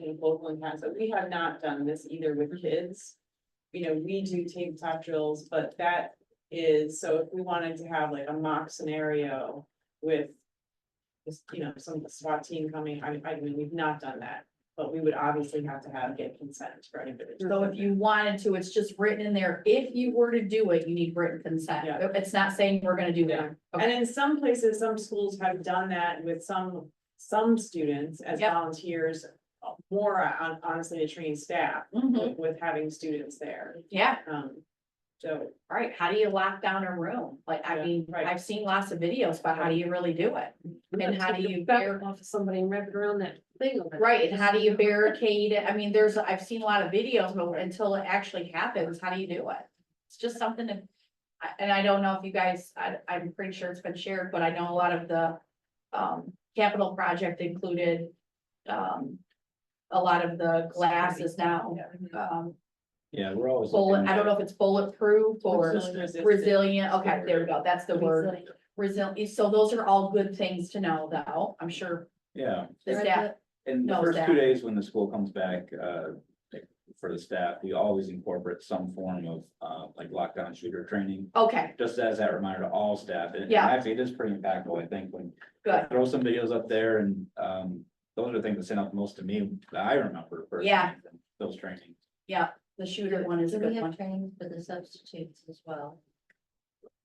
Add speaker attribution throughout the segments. Speaker 1: you know, locally has, but we have not done this either with kids. You know, we do tabletop drills, but that is, so if we wanted to have like a mock scenario with. Just, you know, some of the SWAT team coming, I, I mean, we've not done that, but we would obviously have to have, get consent for anybody. to
Speaker 2: So if you wanted to, it's just written in there, if you were to do it, you need written consent,
Speaker 1: Yeah.
Speaker 2: it's not saying we're gonna do
Speaker 1: Yeah.
Speaker 2: that.
Speaker 1: And in some places, some schools have done that with some, some students as
Speaker 2: Yep.
Speaker 1: volunteers. uh, More on, honestly, to train staff
Speaker 2: Mhm.
Speaker 1: with, with having students there,
Speaker 2: yeah,
Speaker 1: um, so.
Speaker 2: all right, how do you lock down a room? Like, I
Speaker 1: Yeah,
Speaker 2: mean,
Speaker 1: right.
Speaker 2: I've seen lots of videos, but how do you really do it? And how do you bear,
Speaker 3: off of somebody and wrap it around that thing over there.
Speaker 2: right, and how do you barricade it? I mean, there's, I've seen a lot of videos, but until it actually happens, how do you do it? It's just something to, I, and I don't know if you guys, I, I'm pretty sure it's been shared, but I know a lot of the, um, capital project included, um, a lot of the glass is now, um,
Speaker 4: Yeah, we're always.
Speaker 2: bullet,
Speaker 4: looking
Speaker 2: I don't
Speaker 4: at-
Speaker 2: know if it's bulletproof or resilient, okay, there we go, that's the word.
Speaker 3: Resilient.
Speaker 2: Resilient, so those are all good things to know, though, I'm sure
Speaker 4: Yeah,
Speaker 2: the staff,
Speaker 4: and the
Speaker 2: No,
Speaker 4: first
Speaker 2: Zach.
Speaker 4: two days when the school comes back, uh, for the staff, we always incorporate some form of, uh, like lockdown shooter training.
Speaker 2: okay,
Speaker 4: Just as that reminder to all staff, and and
Speaker 2: Yeah.
Speaker 4: actually it is pretty impactful, I think, when.
Speaker 2: Good.
Speaker 4: Throw some videos up there and, um, those are the things that stand out the most to me, that I remember. personally,
Speaker 2: Yeah.
Speaker 4: Those trainings.
Speaker 2: the shooter one is a
Speaker 5: Do we
Speaker 2: good
Speaker 5: have
Speaker 2: one.
Speaker 5: training for the substitutes as well?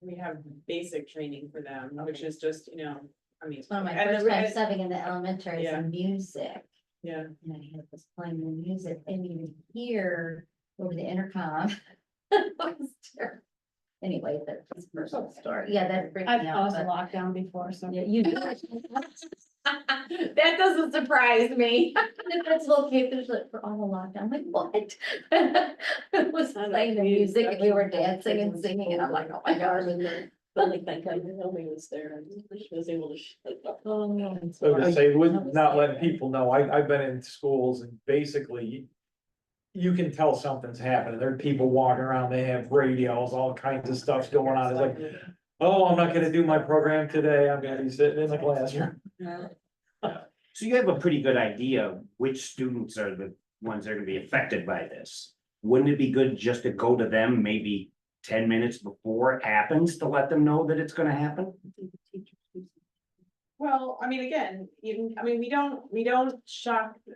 Speaker 1: We have basic training for them, which is just, you know, I mean.
Speaker 5: One of my
Speaker 1: and the
Speaker 5: first
Speaker 1: re-
Speaker 5: time subbing in the elementary is
Speaker 1: Yeah.
Speaker 5: in music,
Speaker 1: Yeah,
Speaker 5: and I had was playing the music, and you would hear over the intercom. It was terrible. Anyway, that's a personal story, yeah, that freaked
Speaker 3: I've
Speaker 5: me out,
Speaker 3: caused a
Speaker 5: but.
Speaker 3: lockdown before, so.
Speaker 5: Yeah, You do.
Speaker 2: That doesn't surprise me.
Speaker 5: The principal came through, she's like, we're all locked, I'm like, what? It was
Speaker 3: I know,
Speaker 5: playing the
Speaker 3: community
Speaker 5: music, and we were
Speaker 3: section.
Speaker 5: dancing and singing, and I'm like, oh my
Speaker 3: I
Speaker 5: gosh.
Speaker 3: remember, but like that guy, the homie was there, and she was able to. sh- like,
Speaker 5: Oh, no.
Speaker 6: So to say, would not let people know, I, I've been in schools and basically. You can tell something's happening, there are people walking around, they have radios, all kinds of stuff going on, it's like, oh, I'm not gonna do my program today, I'm gonna be sitting in the classroom.
Speaker 7: So you have a pretty good idea of which students are the ones that are gonna be affected by this. Wouldn't it be good just to go to them maybe ten minutes before it happens to let them know that it's gonna happen?
Speaker 1: well, I mean, again, even, I mean, we don't, we don't shock the,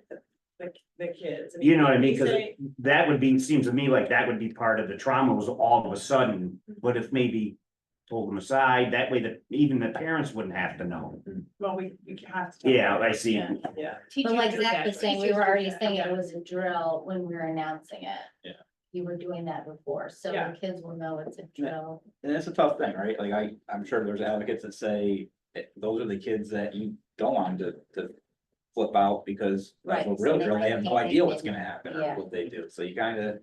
Speaker 1: the the kids.
Speaker 7: You know what I mean?
Speaker 1: we
Speaker 7: Cause
Speaker 1: say-
Speaker 7: that would be, seems to me like that would be part of the trauma was all of a sudden, but if maybe. Pull them aside, that way that even the parents wouldn't have to know.
Speaker 1: Well, we, we have to.
Speaker 7: Yeah, I see.
Speaker 1: Yeah,
Speaker 5: But like Zach was saying, we were already saying
Speaker 1: yeah.
Speaker 5: it was a drill when we were announcing it.
Speaker 4: Yeah.
Speaker 5: You were doing that before, so
Speaker 1: Yeah.
Speaker 5: the kids will know it's a
Speaker 4: Yeah.
Speaker 5: drill.
Speaker 4: And it's a tough thing, right? Like I, I'm sure there's advocates that say, eh, those are the kids that you don't want to, to flip out because like
Speaker 5: Right,
Speaker 4: a
Speaker 5: so
Speaker 4: real
Speaker 5: they
Speaker 4: girl, they
Speaker 5: might
Speaker 4: have no
Speaker 5: think they
Speaker 4: idea what's
Speaker 5: didn't.
Speaker 4: gonna happen
Speaker 5: Yeah.
Speaker 4: or what they do. So you kinda,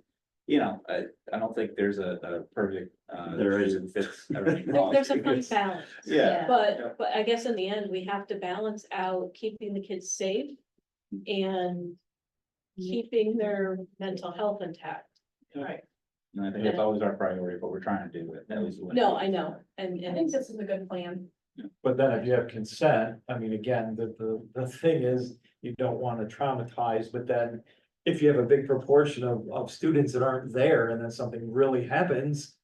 Speaker 4: you know, I, I don't think there's a, a perfect, uh.
Speaker 7: There
Speaker 4: shoe
Speaker 7: isn't.
Speaker 4: that Fits everything.
Speaker 3: There-
Speaker 4: all.
Speaker 3: There's a fun balance,
Speaker 4: Yeah, Yeah.
Speaker 3: but, but I guess in the end, we have to balance out keeping the kids safe and keeping their mental health intact.
Speaker 1: right.
Speaker 4: and I think that's always our priority, what we're trying to do, with at least. when-
Speaker 3: No, I know, and,
Speaker 2: I
Speaker 3: and
Speaker 2: think
Speaker 3: it's,
Speaker 2: this is a good plan.
Speaker 6: But then if you have consent, I mean, again, the, the, the thing is, you don't wanna traumatize, but then. If you have a big proportion of, of students that aren't there and then something really happens.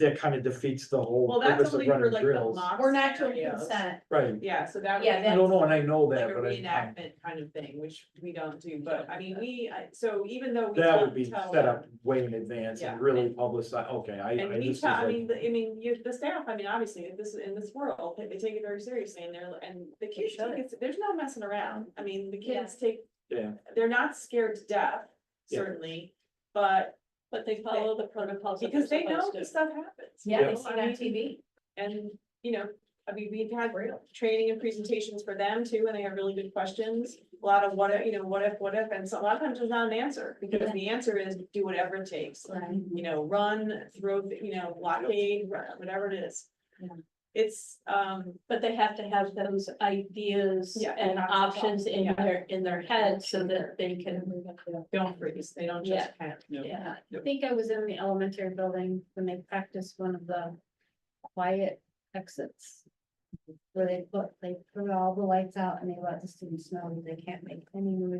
Speaker 6: That kind of defeats the
Speaker 1: Well,
Speaker 6: whole
Speaker 1: that's
Speaker 6: purpose of
Speaker 1: only for
Speaker 6: running
Speaker 1: like the
Speaker 6: drills.
Speaker 1: mock.
Speaker 2: We're not to
Speaker 1: scenarios.
Speaker 8: uh,
Speaker 2: consent.
Speaker 6: Right,
Speaker 1: Yeah, so that.
Speaker 2: Yeah,
Speaker 1: would-
Speaker 6: I
Speaker 2: that-
Speaker 6: don't know, and I know
Speaker 1: Like
Speaker 6: that,
Speaker 1: a
Speaker 6: but I,
Speaker 1: reenactment kind of thing, which we don't do, but I mean, we, I- so even though. we
Speaker 6: that
Speaker 1: tell-
Speaker 6: would be
Speaker 1: tell
Speaker 6: set
Speaker 1: them-
Speaker 6: up way in advance
Speaker 1: Yeah.
Speaker 6: and really publicized, okay, I, I.
Speaker 1: And we
Speaker 6: this is
Speaker 1: tell, I
Speaker 6: like-
Speaker 1: mean, the- I mean, you, the staff, I mean, obviously, in this, in this world, they, they take it very seriously and they're, and the kids,
Speaker 2: should.
Speaker 1: take it- there's no messing around. I mean, the
Speaker 2: Yeah.
Speaker 1: kids take.
Speaker 6: Yeah.
Speaker 1: They're not scared to death,
Speaker 6: Yeah.
Speaker 1: certainly, but
Speaker 3: but they follow the protocols. that
Speaker 1: because
Speaker 3: they're
Speaker 1: they know
Speaker 3: supposed to.
Speaker 1: this stuff happens.
Speaker 2: Yeah, they
Speaker 1: you know?
Speaker 2: see
Speaker 1: I
Speaker 2: it on
Speaker 1: mean,
Speaker 2: TV.
Speaker 1: And, you know, I mean, we've had training and presentations for them too, and they have really good questions. A lot of what, if you know, what if, what if, and so a lot of times there's not an answer, because the answer is do whatever it takes.
Speaker 5: Right.
Speaker 1: You know, run, throw, you know, blockade, run, whatever it is.
Speaker 5: Yeah.
Speaker 1: It's, um,
Speaker 3: But they have to have those ideas
Speaker 1: Yeah,
Speaker 3: and
Speaker 1: not
Speaker 3: options
Speaker 1: thought,
Speaker 3: in
Speaker 1: yeah.
Speaker 3: their, in their head so that they can.
Speaker 1: don't freeze, they don't
Speaker 3: Yeah.
Speaker 1: just panic.
Speaker 3: Yeah.
Speaker 4: Yep.
Speaker 8: think I was in the elementary building when they practiced one of the quiet exits.
Speaker 5: Where they put, they put all the lights out and they let the students know that they can't make any noise